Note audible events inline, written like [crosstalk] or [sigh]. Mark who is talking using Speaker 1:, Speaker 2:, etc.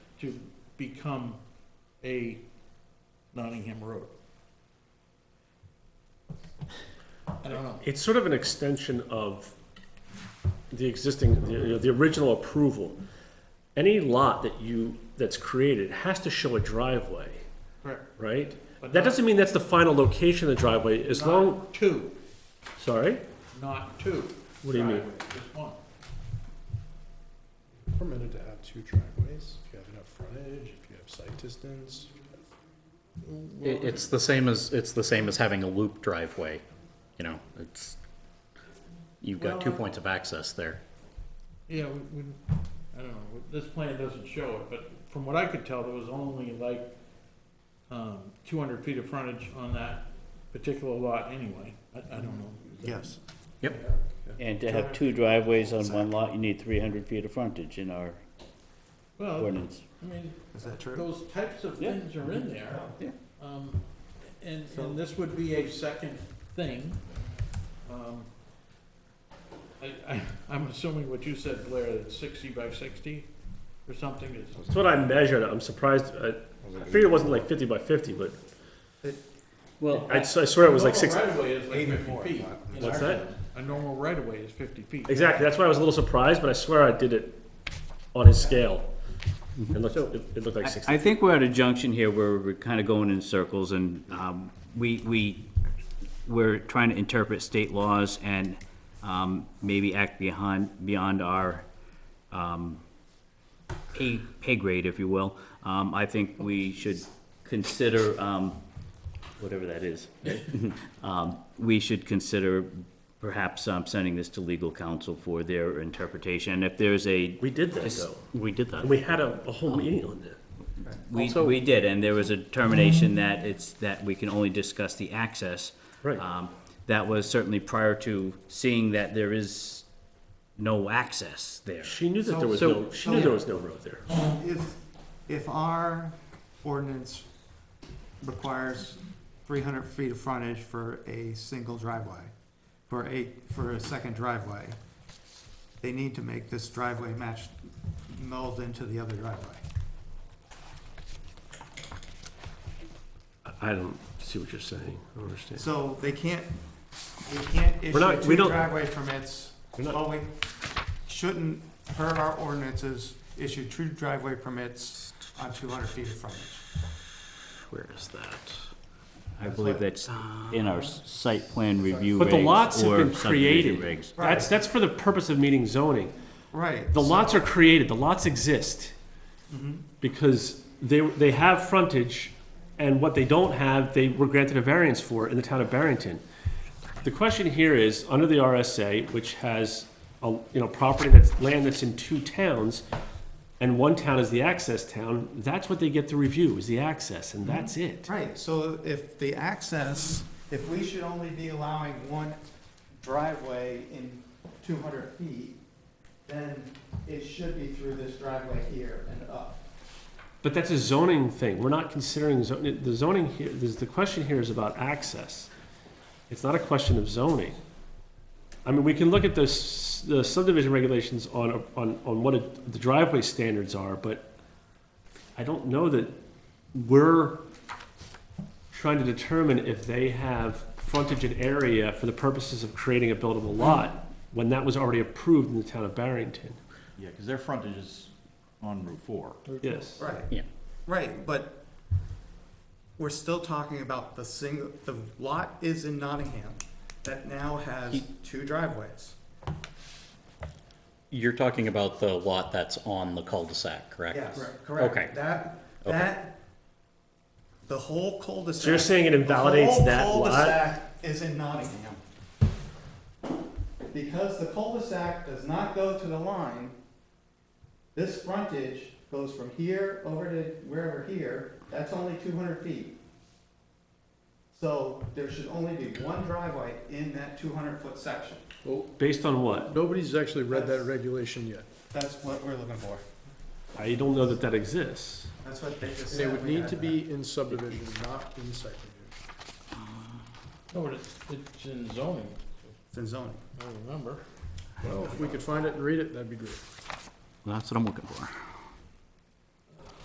Speaker 1: to become a Nottingham Road. I don't know.
Speaker 2: It's sort of an extension of the existing, the, the original approval. Any lot that you, that's created has to show a driveway,
Speaker 1: Correct.
Speaker 2: right?
Speaker 1: But
Speaker 2: That
Speaker 1: not-
Speaker 2: doesn't mean that's the final location of the driveway, as long,
Speaker 1: Not Two,
Speaker 2: sorry?
Speaker 1: not two.
Speaker 2: What do you mean?
Speaker 1: driveways, Just one.
Speaker 3: Permitted to have two driveways, if you have enough frontage, if you have site distance.
Speaker 4: It, it's the same as, it's the same as having a loop driveway, you know, it's, you've got two
Speaker 1: Well, I-
Speaker 4: points of access there.
Speaker 1: Yeah, we, we, I don't know, this plan doesn't show it, but from what I could tell, there was only like, um, two hundred feet of frontage on that particular lot anyway. I, I don't know.
Speaker 3: Yes.
Speaker 5: And to have two driveways on one lot, you need three hundred feet of frontage in our
Speaker 1: Well,
Speaker 5: ordinance.
Speaker 1: I mean,
Speaker 3: Is that true?
Speaker 1: those types of
Speaker 5: Yeah.
Speaker 1: things are in there.
Speaker 4: Yeah.
Speaker 1: Um, and, and this would be a second thing. Um, I, I, I'm assuming what you said, Blair, that sixty by sixty or something is.
Speaker 2: That's what I measured, I'm surprised, I I figured it wasn't like fifty by fifty, but
Speaker 5: Well,
Speaker 2: I, s- I swear it was like six,
Speaker 1: A normal right-of-way is like fifty
Speaker 3: Eighty-four,
Speaker 1: feet.
Speaker 3: I
Speaker 1: in
Speaker 2: What's
Speaker 1: our
Speaker 2: that?
Speaker 1: town. A normal right-of-way is fifty feet.
Speaker 2: exactly, that's why I was a little surprised, but I swear I did it on his scale. It looked, it it looked like
Speaker 5: I,
Speaker 2: sixty.
Speaker 5: I think we're at a junction here where we're kind of going in circles and, um, we, we, we're trying to interpret state laws and, um, maybe act behind, beyond our, um, pay, pay grade, if you will. Um, I think we should consider, um, whatever that is. [laughs] Um, we should consider perhaps, um, sending this to legal counsel for their interpretation. And if there's a.
Speaker 2: We did that though,
Speaker 5: We did that.
Speaker 2: and we had a, a whole meeting on that.
Speaker 5: We, we did, and there was a determination that it's, that we can only discuss the access.
Speaker 2: Right.
Speaker 5: Um, That was certainly prior to seeing that there is no access there.
Speaker 2: She knew that there was
Speaker 5: So-
Speaker 2: no, she knew there was no road there.
Speaker 6: If, if our ordinance requires three hundred feet of frontage for a single driveway, for a, for a second driveway, they need to make this driveway match, meld into the other driveway.
Speaker 2: I- I don't see what you're saying, I don't understand.
Speaker 6: So they can't, they can't
Speaker 2: not-
Speaker 6: issue
Speaker 2: we
Speaker 6: two
Speaker 2: don't-
Speaker 6: driveway permits.
Speaker 2: We're not-
Speaker 6: Well, we shouldn't, per our ordinances, issue two driveway permits on two hundred feet of frontage.
Speaker 2: Where is that?
Speaker 5: I believe that's in our s- site plan review regs.
Speaker 2: But the lots have
Speaker 5: or
Speaker 2: been
Speaker 5: subdivision
Speaker 2: created.
Speaker 5: regs.
Speaker 2: That's, that's for the purpose of meeting zoning.
Speaker 6: Right.
Speaker 2: The lots are created, the lots exist. Because they, they have frontage, and what they don't have, they were granted a variance for in the town of Barrington. The question here is, under the RSA, which has, a you know, property that's, land that's in two towns, and one town is the access town, that's what they get to review, is the access, and that's it.
Speaker 6: Right, so if the access, if we should only be allowing one driveway in two hundred feet, then it should be through this driveway here and up.
Speaker 2: But that's a zoning thing. We're not considering zoning. The zoning here, this, the question here is about access. It's not a question of zoning. I mean, we can look at the, s- the subdivision regulations on, on, on what it- the driveway standards are, but I don't know that we're trying to determine if they have frontage and area for the purposes of creating a buildable lot when that was already approved in the town of Barrington.
Speaker 7: Yeah, because their frontage is on Route 4.
Speaker 2: Yes.
Speaker 6: Right.
Speaker 4: Yeah.
Speaker 6: Right, but we're still talking about the single, the lot is in Nottingham that now has two driveways.
Speaker 4: You're talking about the lot that's on the cul-de-sac, correct?
Speaker 6: Yes, correct.
Speaker 4: Okay.
Speaker 6: That,
Speaker 4: Okay.
Speaker 6: that, the whole cul-de-sac.
Speaker 2: So you're saying it invalidates that
Speaker 6: The whole
Speaker 2: lot?
Speaker 6: cul-de-sac is in Nottingham. Because the cul-de-sac does not go to the line, this frontage goes from here over to wherever here, that's only two hundred feet. So there should only be one driveway in that two hundred foot section.
Speaker 2: Based on what?
Speaker 3: Nobody's actually read that regulation yet.
Speaker 6: That's what we're looking for.
Speaker 2: I don't know that that exists.
Speaker 6: That's what they just
Speaker 3: And
Speaker 6: said.
Speaker 3: it would
Speaker 6: we
Speaker 3: need
Speaker 6: had
Speaker 3: to be in subdivision, not in site review.
Speaker 1: No, but it's, it's in zoning,
Speaker 6: It's in zoning.
Speaker 1: I remember.
Speaker 3: Well, if we could find it and read it, that'd be great.
Speaker 5: Well, That's what I'm looking for.